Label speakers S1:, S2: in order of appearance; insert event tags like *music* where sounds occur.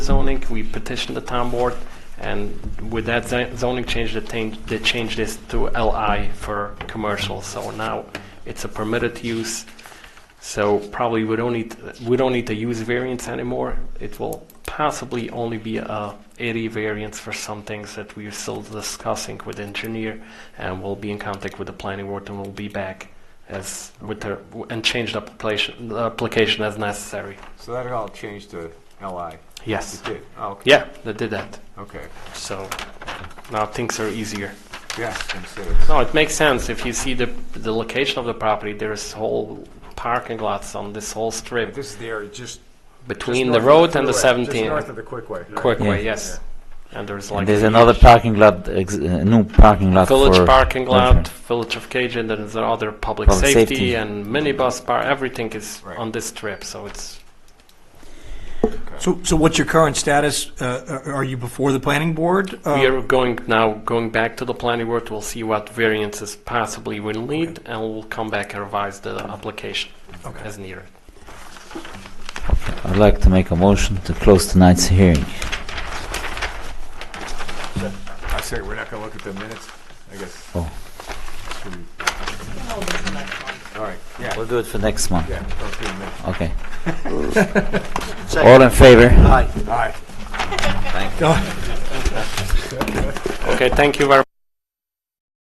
S1: zoning, we petitioned the town board, and with that zo- zoning change, they changed, they changed this to LI for commercial, so now it's a permitted use, so probably we don't need, we don't need to use variance anymore, it will possibly only be a area variance for some things that we're still discussing with engineer, and we'll be in contact with the planning board, and we'll be back as, with the, and change the application, the application as necessary,
S2: So that all changed to LI.
S1: yes.
S2: It did. Oh, okay.
S1: Yeah, they did that.
S2: Okay.
S1: So now things are easier.
S2: Yeah. Consider.
S1: No, it makes sense. If you see the the location of the property, there's whole parking lots on this whole strip
S2: This is the area just
S1: between
S2: just
S1: the
S2: north of
S1: road and the
S2: freeway, Just
S1: 17
S2: north of the Quickway.
S1: Quickway,
S3: Yeah.
S1: yes. And there's like
S3: And there's
S1: huge
S3: another parking lot, ex- uh, new parking lot
S1: village
S3: for
S1: parking lot,
S3: Okay.
S1: village of Cajun, and there's other public,
S3: Public
S1: safety,
S3: safety.
S1: and minibus bar. Everything is
S2: Right.
S1: on this strip, so it's
S4: So, so what's your current status? Uh, Are are you before the planning board? Uh,
S1: we are going now going back to the planning board. We'll see what variances possibly we'll need, and we'll come back and revise the application
S4: Okay.
S1: as needed.
S3: I'd like to make a motion to close tonight's hearing.
S2: I say we're not going to look at the minutes. I guess.
S3: Oh.
S2: Should we- All right. Yeah.
S3: We'll do it for next month.
S2: yeah. Don't do the minutes.
S3: Okay. All in favor?
S2: All right.
S4: *laughs* Go-
S1: Okay, thank you very